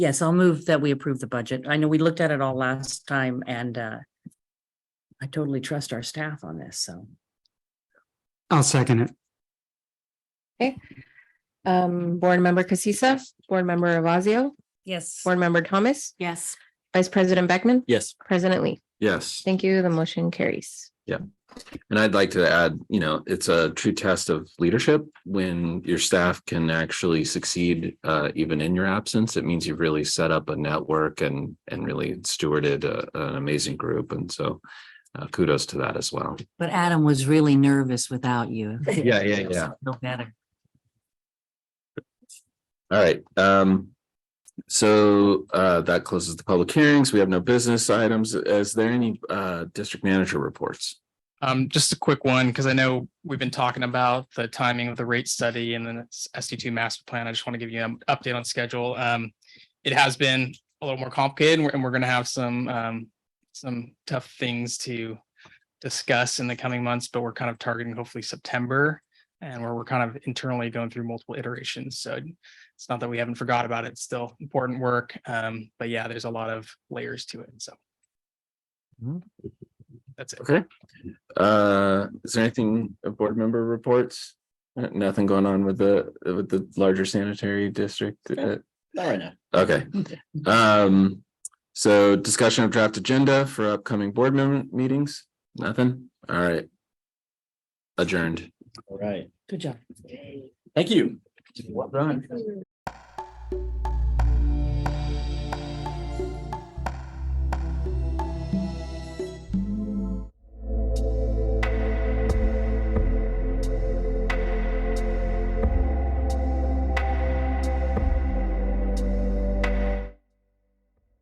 Yes, I'll move that we approve the budget. I know we looked at it all last time and uh. I totally trust our staff on this, so. I'll second it. Um, Board Member Casissa, Board Member Avazio, Yes. Board Member Thomas, Yes. Vice President Beckman, Yes. President Lee. Yes, Thank you. The motion carries. and I'd like to add, you know, it's a true test of leadership when your staff can actually succeed uh even in your absence. It means you've really set up a network and and really stewarded a- an amazing group. And so uh, kudos to that as well. But Adam was really nervous without you. Yeah, yeah, yeah. No better. All right, um, so, uh, that closes the public hearings. We have no business items. Is there any, uh, district manager reports? Um, just a quick one, because I know we've been talking about the timing of the rate study and then SD two master plan. I just want to give you an update on schedule. Um, it has been a little more complicated and we're, and we're going to have some, um, some tough things to discuss in the coming months, but we're kind of targeting hopefully September. And where we're kind of internally going through multiple iterations. So it's not that we haven't forgot about it. It's still important work. Um, but yeah, there's a lot of layers to it. So. Mhm. That's it. Okay. Uh, is there anything, uh, board member reports? Uh, Nothing going on with the, with the larger sanitary district? uh, All right now. Okay, um, so discussion of draft agenda for upcoming board member meetings? Nothing? All right. Adjourned. All right. Good job. Thank you. Well done.